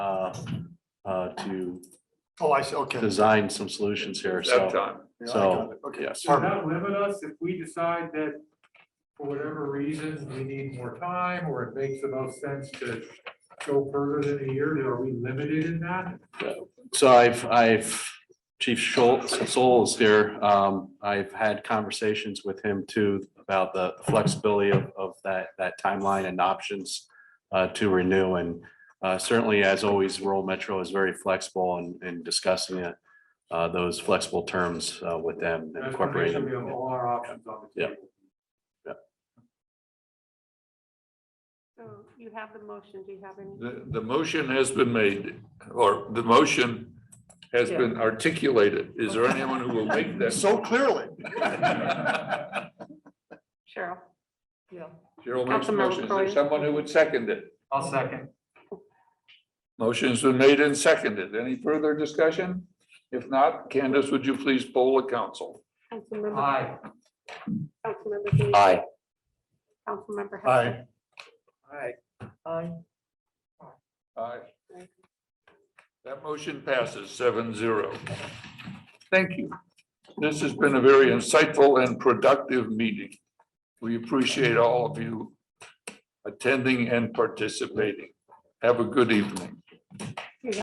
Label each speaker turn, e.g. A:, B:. A: enough uh, to
B: Oh, I see, okay.
A: design some solutions here,
C: That
A: so,
C: time.
B: Yeah, I
A: so,
B: got it. Okay.
A: yes.
D: Does that limit us if we decide that for whatever reason, we need more time or it makes the most sense to go further than a year? Are we limited in that?
A: So I've, I've, Chief Schultz, Sol's here, um, I've had conversations with him too about the flexibility of, of that, that timeline and options uh, to renew and uh, certainly as always, rural metro is very flexible in, in discussing it, uh, those flexible terms uh, with them and
D: That's gonna make
A: incorporating.
D: sure
A: them.
D: We have all our options on the
A: Yeah.
D: table.
E: So you have the motion, do you have any?
C: The, the motion has been made, or the motion has been articulated. Is there anyone who will make that?
B: So clearly.
E: Cheryl? Yeah.
C: Cheryl makes the
E: Councilmember
C: motion. Is there
E: Crowe.
C: someone who would second it?
D: I'll second.
C: Motion's been made and seconded. Any further discussion? If not, Candace, would you please poll the council?
E: Councilmember,
D: Aye.
E: Councilmember Dean.
A: Aye.
E: Councilmember.
B: Aye.
E: Hudson.
D: Aye.
C: Aye. That motion passes seven zero. Thank you. This has been a very insightful and productive meeting. We appreciate all of you attending and participating. Have a good evening.